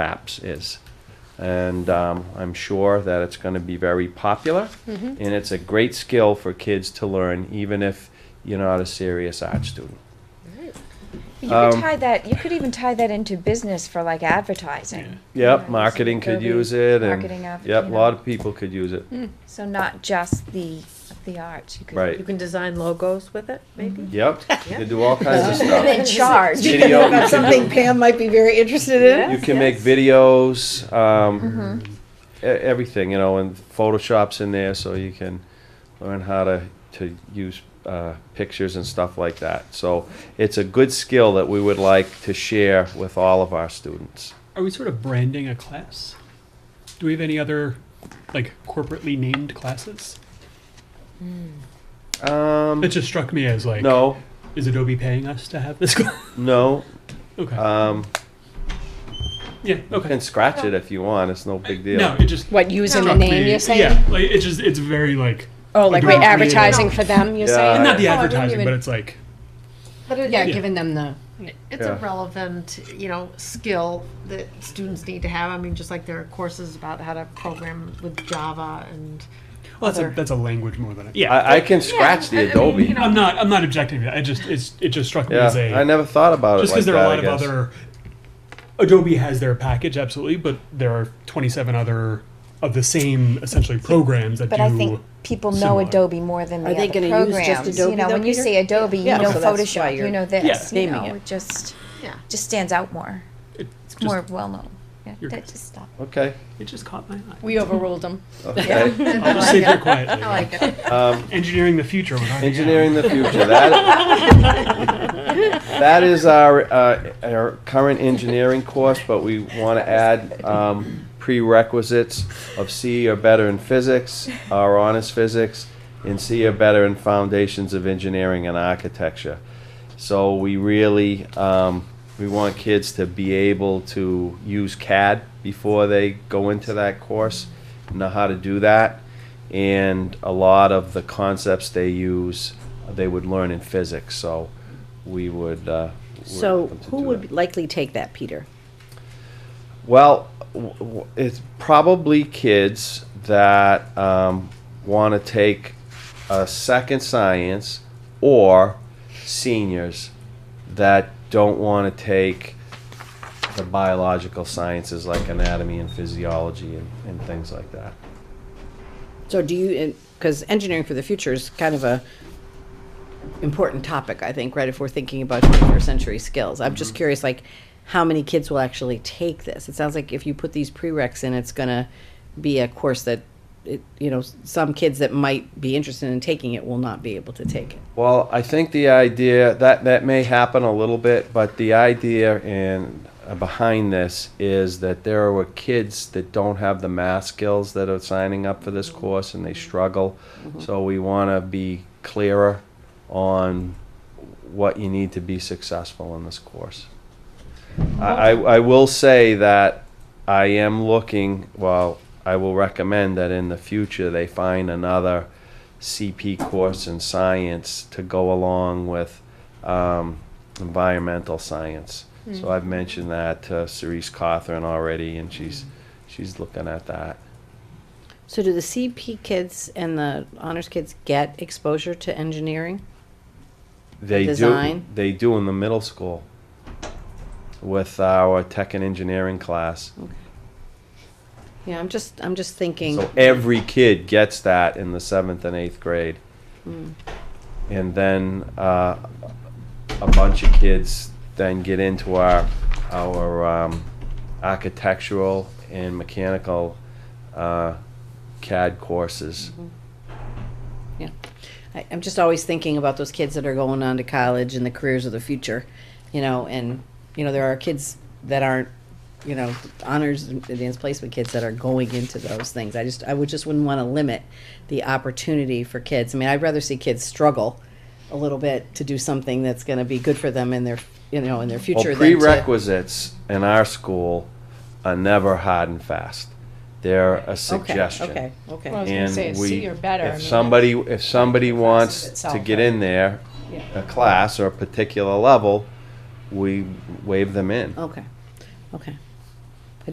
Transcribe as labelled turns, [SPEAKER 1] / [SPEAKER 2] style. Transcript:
[SPEAKER 1] maps is. And um, I'm sure that it's going to be very popular.
[SPEAKER 2] Mm-hmm.
[SPEAKER 3] Mm-hmm.
[SPEAKER 1] And it's a great skill for kids to learn, even if you're not a serious art student.
[SPEAKER 2] You could
[SPEAKER 1] Um,
[SPEAKER 2] tie that. You could even tie that into business for like advertising.
[SPEAKER 1] Yep,
[SPEAKER 2] Yeah,
[SPEAKER 1] marketing
[SPEAKER 2] so
[SPEAKER 1] could
[SPEAKER 2] Adobe
[SPEAKER 1] use it. and-
[SPEAKER 2] marketing app,
[SPEAKER 1] Yep, a
[SPEAKER 2] you
[SPEAKER 1] lot
[SPEAKER 2] know. Hmm. Mm.
[SPEAKER 1] of people could use it.
[SPEAKER 2] So not just the the arts. You could
[SPEAKER 1] Right.
[SPEAKER 3] You can design logos with it, maybe?
[SPEAKER 1] Yep, you can do all kinds of stuff.
[SPEAKER 2] They charge.
[SPEAKER 1] Video, you
[SPEAKER 4] About
[SPEAKER 1] can
[SPEAKER 4] something Pam might be very interested in.
[SPEAKER 1] You can make videos,
[SPEAKER 2] Mm-hmm.
[SPEAKER 1] um, e- everything, you know, and Photoshop's in there, so you can learn how to, to use, uh, pictures and stuff like that. So it's a good skill that we would like to share with all of our students.
[SPEAKER 5] Are we sort of branding a class? Do we have any other, like, corporately named classes?
[SPEAKER 1] Um,
[SPEAKER 5] It just struck me as like,
[SPEAKER 1] no,
[SPEAKER 5] is Adobe paying us to have this class?
[SPEAKER 1] no,
[SPEAKER 5] okay.
[SPEAKER 1] um,
[SPEAKER 5] yeah.
[SPEAKER 1] you
[SPEAKER 5] Okay.
[SPEAKER 1] can scratch it if you want, it's no big deal.
[SPEAKER 5] No, it just
[SPEAKER 4] What, using the
[SPEAKER 5] struck
[SPEAKER 4] name,
[SPEAKER 5] me-
[SPEAKER 4] you're saying?
[SPEAKER 5] Yeah. Like it just it's very like
[SPEAKER 4] Oh, like
[SPEAKER 5] Adobe
[SPEAKER 4] we're
[SPEAKER 5] created-
[SPEAKER 4] advertising for them, Oh, you're
[SPEAKER 1] Yeah.
[SPEAKER 4] saying?
[SPEAKER 5] And not the
[SPEAKER 3] No, I wouldn't
[SPEAKER 5] advertising, but
[SPEAKER 3] even-
[SPEAKER 5] it's like
[SPEAKER 3] But it,
[SPEAKER 4] Yeah,
[SPEAKER 5] Yeah.
[SPEAKER 4] giving them the,
[SPEAKER 3] it's
[SPEAKER 1] Yeah.
[SPEAKER 3] a relevant, you know, skill that students need to have. I mean, just like there are courses about how to program with Java and
[SPEAKER 5] well, that's a
[SPEAKER 3] Other-
[SPEAKER 5] that's a language more than a, yeah.
[SPEAKER 1] I, I can scratch
[SPEAKER 3] I- I
[SPEAKER 1] the
[SPEAKER 3] mean,
[SPEAKER 1] Adobe.
[SPEAKER 3] you know,
[SPEAKER 5] I'm not I'm not objecting to that. I just it's it just struck me
[SPEAKER 1] Yeah,
[SPEAKER 5] as a
[SPEAKER 1] I never thought about it
[SPEAKER 5] just
[SPEAKER 1] like
[SPEAKER 5] because there are a lot
[SPEAKER 1] that,
[SPEAKER 5] of
[SPEAKER 1] I guess.
[SPEAKER 5] other Adobe has their package absolutely, but there are 27 other of the same essentially programs that
[SPEAKER 2] But
[SPEAKER 5] do.
[SPEAKER 2] I think people know
[SPEAKER 5] similar.
[SPEAKER 2] Adobe more than the
[SPEAKER 6] Are they
[SPEAKER 2] other
[SPEAKER 6] gonna use just
[SPEAKER 2] programs.
[SPEAKER 6] Adobe
[SPEAKER 2] you know,
[SPEAKER 6] though,
[SPEAKER 2] when you
[SPEAKER 6] Peter?
[SPEAKER 2] say Adobe,
[SPEAKER 4] Yeah,
[SPEAKER 2] you
[SPEAKER 4] so
[SPEAKER 2] know
[SPEAKER 4] that's why
[SPEAKER 2] Photoshop, you
[SPEAKER 4] you're
[SPEAKER 2] know this.
[SPEAKER 5] Yeah.
[SPEAKER 2] you
[SPEAKER 6] naming
[SPEAKER 2] know,
[SPEAKER 6] it.
[SPEAKER 2] just
[SPEAKER 3] yeah.
[SPEAKER 2] just stands out more.
[SPEAKER 5] it
[SPEAKER 2] It's
[SPEAKER 5] just,
[SPEAKER 2] more well known. Yeah,
[SPEAKER 5] You're
[SPEAKER 2] that
[SPEAKER 5] good.
[SPEAKER 2] just stop.
[SPEAKER 1] Okay,
[SPEAKER 5] it just caught my eye.
[SPEAKER 4] we overruled them.
[SPEAKER 1] okay. Um,
[SPEAKER 5] I'll just sit here quietly.
[SPEAKER 3] I like it.
[SPEAKER 5] Engineering the future. with Arnie
[SPEAKER 1] Engineering the future. That, that is our, uh, our current engineering course, but we want to add um, prerequisites of C or better in physics, our honors physics, and C or better in foundations of engineering and architecture. So we really, um, we want kids to be able to use CAD before they go into that course, know how to do that. And a lot of the concepts they use, they would learn in physics, so we would, uh. work
[SPEAKER 6] So
[SPEAKER 1] with them to
[SPEAKER 6] who
[SPEAKER 1] do that.
[SPEAKER 6] would likely take that, Peter?
[SPEAKER 1] Well, w- w- it's probably kids that um, want to take a second science or seniors that don't want to take the biological sciences like anatomy and physiology and, and things like that.
[SPEAKER 6] So do you, because engineering for the future is kind of a important topic, I think, right? If we're thinking about 21st century skills. I'm
[SPEAKER 1] Mm-hmm.
[SPEAKER 6] just curious, like, how many kids will actually take this? It sounds like if you put these prereqs in, it's going to be a course that, it, you know, s- some kids that might be interested in taking it will not be able to take it.
[SPEAKER 1] Well, I think the idea that that may happen a little bit, but the idea and uh, behind this is that there are kids that don't have the math skills that are signing up for this course and they struggle. So we want to be clearer on what you need to be successful in this course. I, I I will say that I am looking, well, I will recommend that in the future they find another CP course in science to go along with um, environmental science. So I've mentioned that to Cerise Cawthorn already, and she's, she's looking at that.
[SPEAKER 6] So do the CP kids and the honors kids get exposure to engineering?
[SPEAKER 1] They do,
[SPEAKER 6] Design?
[SPEAKER 1] they do in the middle school with our tech and engineering class.
[SPEAKER 6] Yeah, I'm just, I'm just thinking.
[SPEAKER 1] So every kid gets that in the seventh and eighth grade. And then uh, a bunch of kids then get into our, our um, architectural and mechanical uh, CAD courses.
[SPEAKER 6] Yeah. I, I'm just always thinking about those kids that are going on to college and the careers of the future, you know, and, you know, there are kids that aren't, you know, honors and advanced placement kids that are going into those things. I just, I would just wouldn't want to limit the opportunity for kids. I mean, I'd rather see kids struggle a little bit to do something that's going to be good for them in their, you know, in their future.
[SPEAKER 1] Well,
[SPEAKER 6] than to-
[SPEAKER 1] prerequisites in our school are never hard and fast. They're a suggestion.
[SPEAKER 6] Okay, okay,
[SPEAKER 4] Well,
[SPEAKER 6] okay.
[SPEAKER 4] I was gonna say,
[SPEAKER 1] And
[SPEAKER 4] it's
[SPEAKER 1] we,
[SPEAKER 4] C or better, I mean,
[SPEAKER 1] if
[SPEAKER 4] that's-
[SPEAKER 1] somebody, if somebody
[SPEAKER 4] class
[SPEAKER 1] wants to
[SPEAKER 4] itself,
[SPEAKER 1] get
[SPEAKER 4] right?
[SPEAKER 1] in there,
[SPEAKER 4] Yeah.
[SPEAKER 1] a class or a particular level, we wave them in.
[SPEAKER 6] Okay, okay.